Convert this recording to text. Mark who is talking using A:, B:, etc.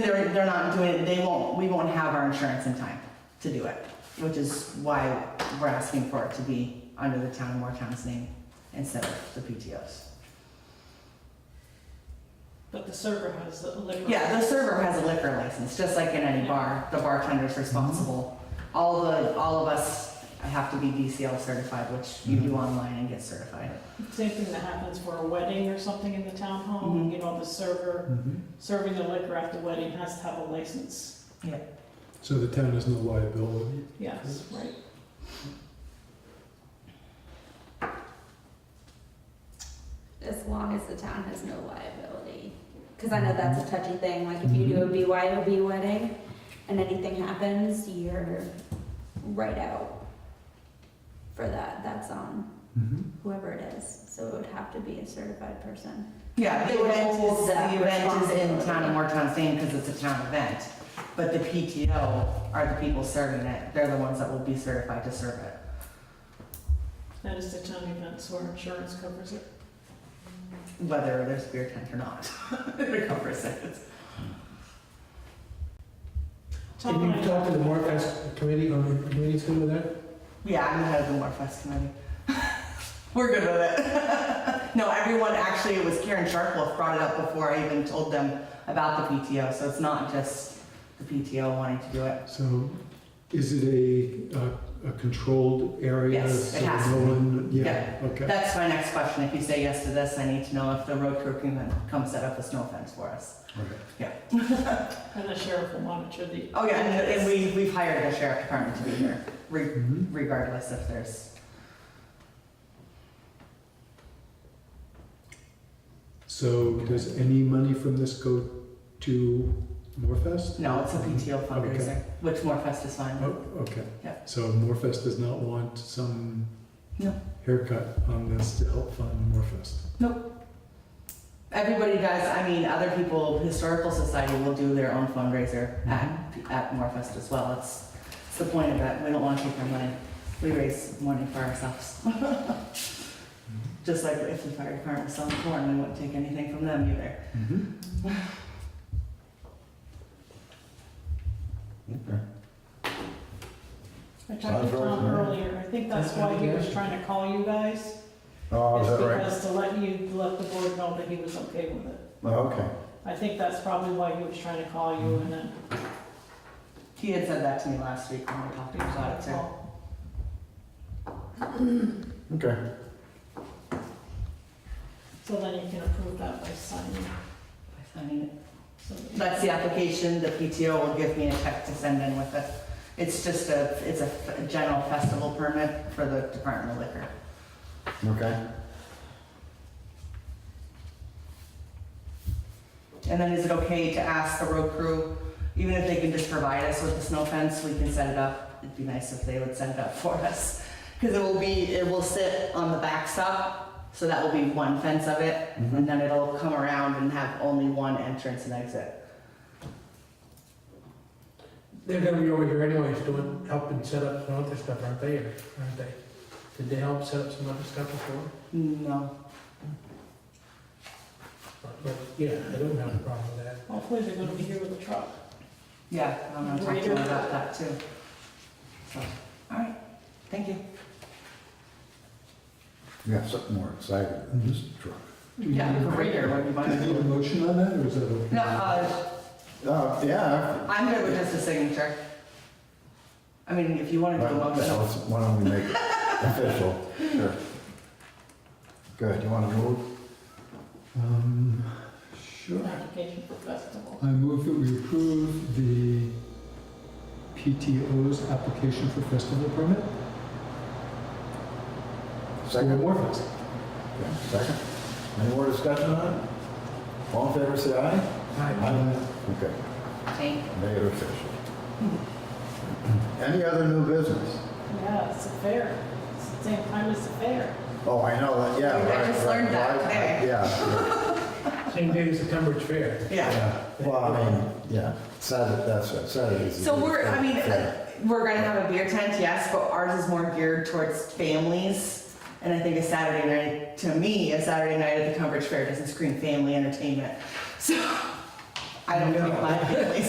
A: They're, they're not doing it, they won't, we won't have our insurance in time to do it, which is why we're asking for it to be under the town of Moretown's name instead of the PTO's.
B: But the server has the liquor.
A: Yeah, the server has a liquor license, just like in any bar, the bartender's responsible. All the, all of us have to be DCL certified, which you do online and get certified.
B: Same thing that happens for a wedding or something in the town hall,
A: Mhm.
B: you know, the server serving the liquor at the wedding has to have a license.
C: So the town has no liability.
B: Yes, right.
D: as long as the town has no liability. Because I know that's a touchy thing, like if you do a BYOB wedding and anything happens, you're right out for that. That's on
B: Mm-hmm.
D: whoever it is. So it would have to be a certified person.
A: Yeah, the
D: They
A: event is, uh,
D: hold that
A: the event is in town of
D: responsibility.
A: Moretown's name because it's a town event. But the PTO are the people serving it, they're the ones that will be certified to serve it.
B: That is the town events where insurance covers it.
A: whether there's a beer tent or not. it covers it.
B: Tom
C: Can you
B: and I-
C: talk to the Mark S. committee, on the committee's good with that?
A: Yeah, I'm the head of the Morfest committee. We're good with it. no, everyone actually, it was Karen Sharpwolf brought it up before I even told them about the PTO, so it's not just the PTO wanting to do it.
C: So is it a, uh, a controlled area?
A: Yes, it
C: so
A: has
C: no
A: to be.
C: one- Yeah, okay.
A: That's my next question. If you say yes to this, I need to know if the road crew can come set up a snow fence for us.
C: Right.
B: And the sheriff will monitor the.
A: Oh yeah, and, and we, we've hired the sheriff department to be here, re-
B: Mm-hmm.
C: Mhm.
A: regardless if there's,
C: So does any money from this go to Morfest?
A: no, it's a PTO fundraiser, which Morfest is fine with.
C: Oh, okay.
A: Yeah.
C: So Morfest does not want some
A: No.
C: haircut on this to help fund Morfest?
A: Everybody does. I mean, other people, historical society will do their own fundraiser at, at Morfest as well. It's, it's the point of it. We don't want to take our money. We raise money for ourselves.
B: Mm-hmm.
A: Just like if the fire department was selling corn, we wouldn't take anything from them either.
B: Mm-hmm.
C: Mhm.
B: I talked to Tom earlier, I think that's why he was trying to call you guys. Oh, is that right? Because to let you, let the board know that he was okay with it.
E: Okay.
B: I think that's probably why he was trying to call you and then.
A: He had said that to me last week when we talked to him about it too.
E: Okay.
B: So then you can approve that by signing.
A: By signing it.
B: So that-
A: That's the application. The PTO will give me a check to send in with it. It's just a, it's a f- general festival permit for the Department of Liquor.
E: Okay.
A: And then is it okay to ask the road crew, even if they can just provide us with the snow fence, we can set it up? It'd be nice if they would set it up for us. Because it will be, it will sit on the backstop, so that will be one fence of it. And then it'll come around and have only one entrance and exit.
F: They're gonna be over here anyways, doing, helping set up some other stuff, aren't they, or aren't they? Did they help set up some other stuff before?
A: No.
F: But, yeah, I don't have a problem with that.
B: Hopefully they're gonna be here with a truck.
A: Yeah, I'm gonna talk to them about that too. So, all right, thank you.
E: We got something more exciting than this truck.
C: Do you need a-
A: Greater would be
C: Do you need a
A: wonderful.
C: motion on that, or is that okay?
A: No, uh,
E: Uh, yeah.
A: I'm good with just a signature. I mean, if you wanna do a
E: Well,
A: motion.
E: let's- Why don't we make it official? Sure. Good, you want to move?
C: Um, Sure.
B: Application for festival.
C: I move that we approve the PTO's application for festival permit for
E: Second?
C: Warfest.
E: Yeah, Second? Any more discussion on it? All in favor, say aye. Okay,
A: Thank you.
E: make it official. Any other new business?
B: Yeah, it's a fair. It's the same time as the fair.
E: Oh, I know, that. yeah,
A: I
E: right.
A: just
E: right,
A: learned that
E: right,
A: today.
E: Yeah,
F: Same day as the Tunbridge Fair.
A: Yeah.
E: yeah. Well, I mean, yeah, Saturday, that's right, Saturday's. the
A: So
E: big
A: we're, I mean,
E: fair.
A: uh, we're gonna have a beer tent, yes, but ours is more geared towards families. And I think a Saturday night, to me, a Saturday night at the Tunbridge Fair doesn't scream family entertainment. So I don't
E: No.
A: think my family's